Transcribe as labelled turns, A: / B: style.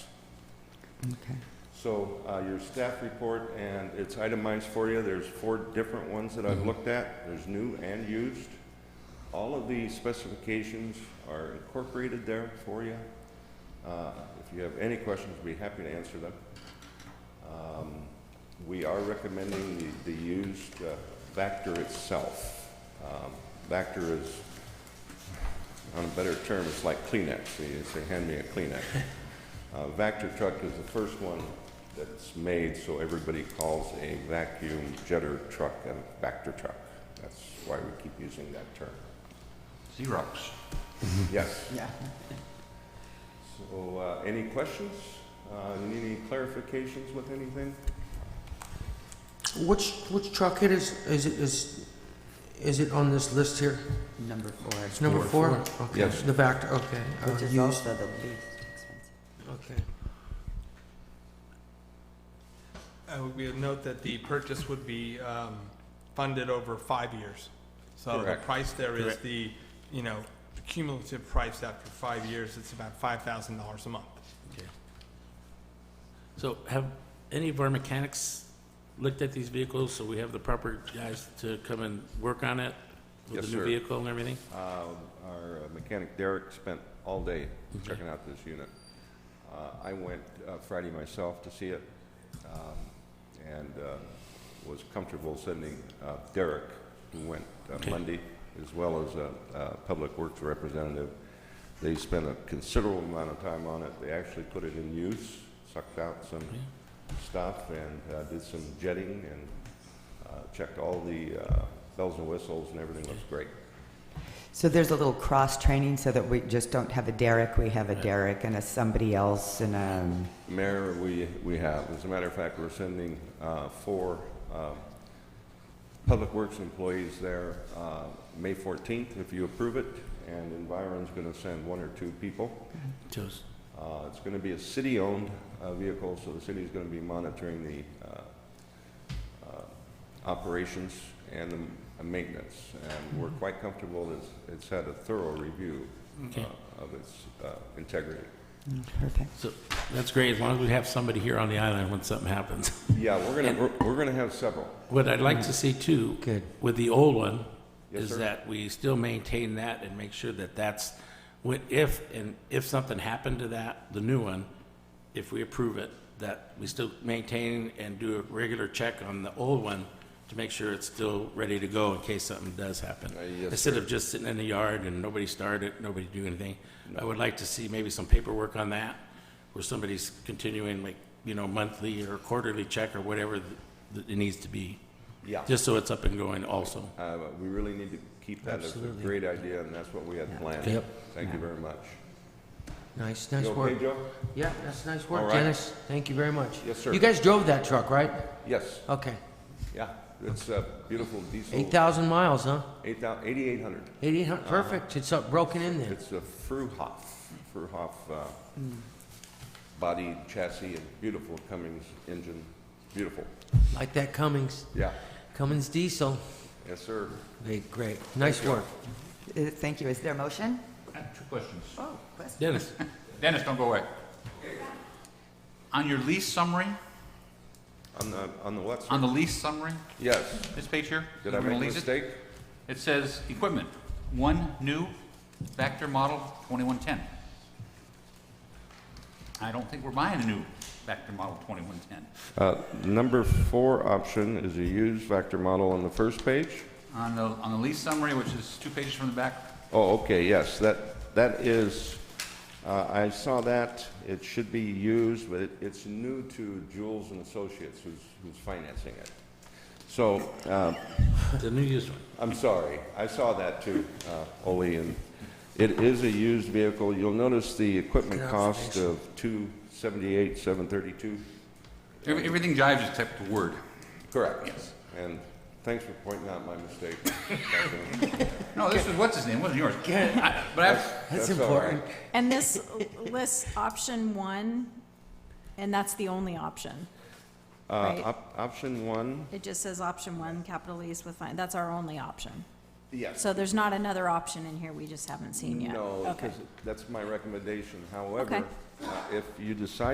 A: Okay.
B: So uh, your staff report, and it's itemized for you. There's four different ones that I've looked at. There's new and used. All of the specifications are incorporated there for you. Uh, If you have any questions, we'd be happy to answer them. Um, We are recommending the- the used uh, Vector itself. Um, Vector is, on a better term, it's like Kleenex. They say, "Hand me a Kleenex." Uh, Vector truck is the first one that's made, so everybody calls a vacuum jetter truck a Vector truck. That's why we keep using that term.
C: Xerox.
B: Yes.
A: Yeah.
B: So, uh, any questions? Uh, you need any clarifications with anything?
D: Which, which truck it is, is it, is, is it on this list here?
A: Number four,
D: It's number four? Okay,
B: Yes.
D: The Vector, okay. uh,
A: which is
D: used.
A: also the least expensive.
D: Okay.
E: I would be- Uh, note that the purchase would be um, funded over five years. So the
B: Correct.
E: price there is
B: Correct.
E: the, you know, the cumulative price after five years, it's about $5,000 a month.
C: So have any of our mechanics looked at these vehicles, so we have the proper guys to come and work on it?
B: Yes,
C: With the
B: sir.
C: new vehicle and everything?
B: Uh, Our mechanic Derek spent all day checking out this unit. Uh, I went uh, Friday myself to see it um, and uh, was comfortable sending uh, Derek, who went uh,
C: Okay.
B: Monday, as well as a a Public Works representative. They spent a considerable amount of time on it. They actually put it in use, sucked out some
C: Yeah.
B: stuff and uh, did some jetting and uh, checked all the uh, bells and whistles and everything looks great.
A: So there's a little cross-training so that we just don't have a Derek, we have a
C: Right.
A: Derek and a somebody else and um, a,
B: Mayor, we, we have. As a matter of fact, we're sending uh, four um, Public Works employees there uh, May 14th, if you approve it, and Environ's going to send one or two people.
C: Just-
B: Uh, It's going to be a city-owned uh, vehicle, so the city's going to be monitoring the uh, uh, operations and the maintenance. And we're quite comfortable that it's- it's had a thorough review
C: Okay.
B: uh, of its uh, integrity.
A: perfect.
C: That's great, as long as we have somebody here on the island when something happens.
B: Yeah, we're going to, we're going to have several.
C: What I'd like to see too,
D: Good.
C: with the old one,
B: Yes,
C: is
B: sir.
C: that we still maintain that and make sure that that's, when, if, and if something happened to that, the new one, if we approve it, that we still maintain and do a regular check on the old one to make sure it's still ready to go in case something does happen.
B: Uh, yes,
C: Instead of just sitting in the yard and nobody started, nobody do anything, I would like to see maybe some paperwork on that, where somebody's continuing like, you know, monthly or quarterly check or whatever th- th- it needs to be.
B: Yeah.
C: Just so it's up and going also.
B: Uh, but We really need to keep that as a
D: Absolutely.
B: great idea, and that's what we had planned.
C: Yep.
B: Thank you very much.
D: Nice,
B: You
D: nice
B: okay,
D: work.
B: Joe?
D: Yeah, that's nice
B: All
D: work,
B: right.
D: Dennis. Thank you very much.
B: Yes, sir.
D: You guys drove that truck, right?
B: Yes,
D: Okay.
B: yeah. It's a beautiful diesel.
D: Eight thousand miles, huh?
B: Eight thou- 8,800.
D: Eighty-eight hundred, perfect. It's up, broken in there.
B: Uh, It's a Fruhoff, Fruhoff uh, body chassis and beautiful Cummins engine. Beautiful.
D: Like that Cummins,
B: Yeah.
D: Cummins diesel.
B: Yes, sir.
D: Big, great. Nice work.
A: Uh, Thank you. Is there a motion?
F: I have two questions.
A: Oh, question.
C: Dennis,
F: Dennis, don't go away. On your lease summary,
B: On the, on the what, sir?
F: on the lease summary,
B: Yes.
F: this page here?
B: Did I
F: we're
B: make
F: gonna
B: a
F: lease it,
B: mistake?
F: It says, equipment, one new Vector model 2110. I don't think we're buying a new Vector model 2110.
B: Uh, Number four option is a used Vector model on the first page.
F: On the, on the lease summary, which is two pages from the back,
B: Oh, okay, yes, that, that is, uh, I saw that, it should be used, but it- it's new to Jules and Associates who's, who's financing it. So, uh,
C: the new used one.
B: I'm sorry, I saw that too, uh, Ole, and it is a used vehicle. You'll notice the equipment
D: Good
B: cost of two seventy-eight, seven thirty-two.
F: Every- everything jives except the word.
B: Correct. Yes. And thanks for pointing out my mistake.
F: No, this was, what's his name, It wasn't yours. I- But I, was-
D: That's
B: all right.
D: important.
G: And this lists option one, and that's the only option.
B: Uh,
G: Right.
B: op- option one,
G: It just says option one, capital lease with fine, that's our only option.
B: yes.
G: So there's not another option in here we just haven't seen yet.
B: No,
G: Okay.
B: because that's my recommendation. However, uh, if you decide